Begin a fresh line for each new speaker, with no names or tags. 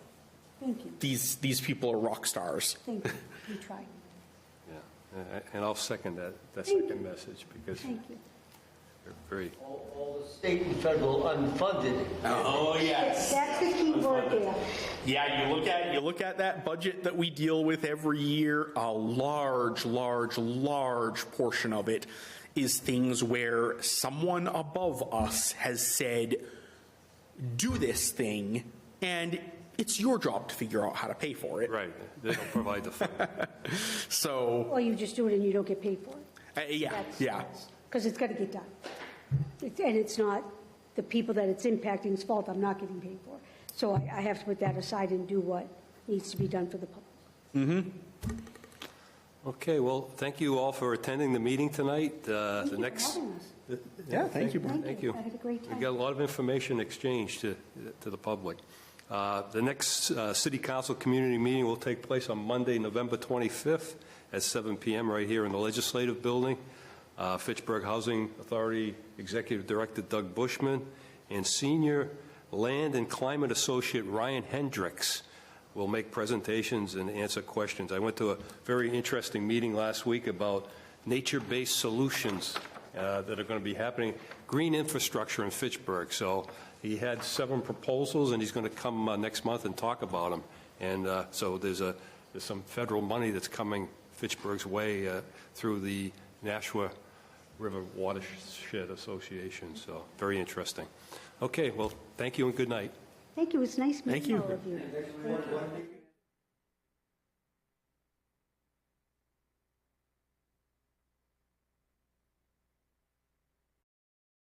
Thank you.
these, these people are rock stars.
Thank you. You try.
Yeah, and- and I'll second that, that
Thank
second message, because
Thank you.
they're very,
All all the state and federal unfunded
Oh, yes.
That's the key word there.
Yeah, you look at, you look at that budget that we deal with every year, a large, large, large portion of it is things where someone above us has said, do this thing, and it's your job to figure out how to pay for it.
right, they don't provide the funding.
So,
Or you just do it and you don't get paid for it.
uh, yeah, yeah.
Because it's got to get done. It's- And it's not the people that it's impacting's fault, I'm not getting paid for. So I, I have to put that aside and do what needs to be done for the public.
Okay, well, thank you all for attending the meeting tonight. Uh, The
Thank you for
next.
having us.
Yeah,
thank you,
Brian.
Thank you.
I had a great time.
We got a lot of information exchanged to, to the public. Uh, The next uh, City Council Community Meeting will take place on Monday, November 25th at 7 PM right here in the Legislative Building. Uh, Fitchburg Housing Authority Executive Director Doug Bushman and Senior Land and Climate Associate Ryan Hendricks will make presentations and answer questions. I went to a very interesting meeting last week about nature-based solutions uh, that are going to be happening, green infrastructure in Fitchburg. So he had seven proposals, and he's going to come uh, next month and talk about them. And uh, so there's a, there's some federal money that's coming Fitchburg's way uh, through the Nashua River Watershed Association, so very interesting. Okay, well, thank you and good night.
Thank you, it's nice
Thank
meeting
you.
all of you.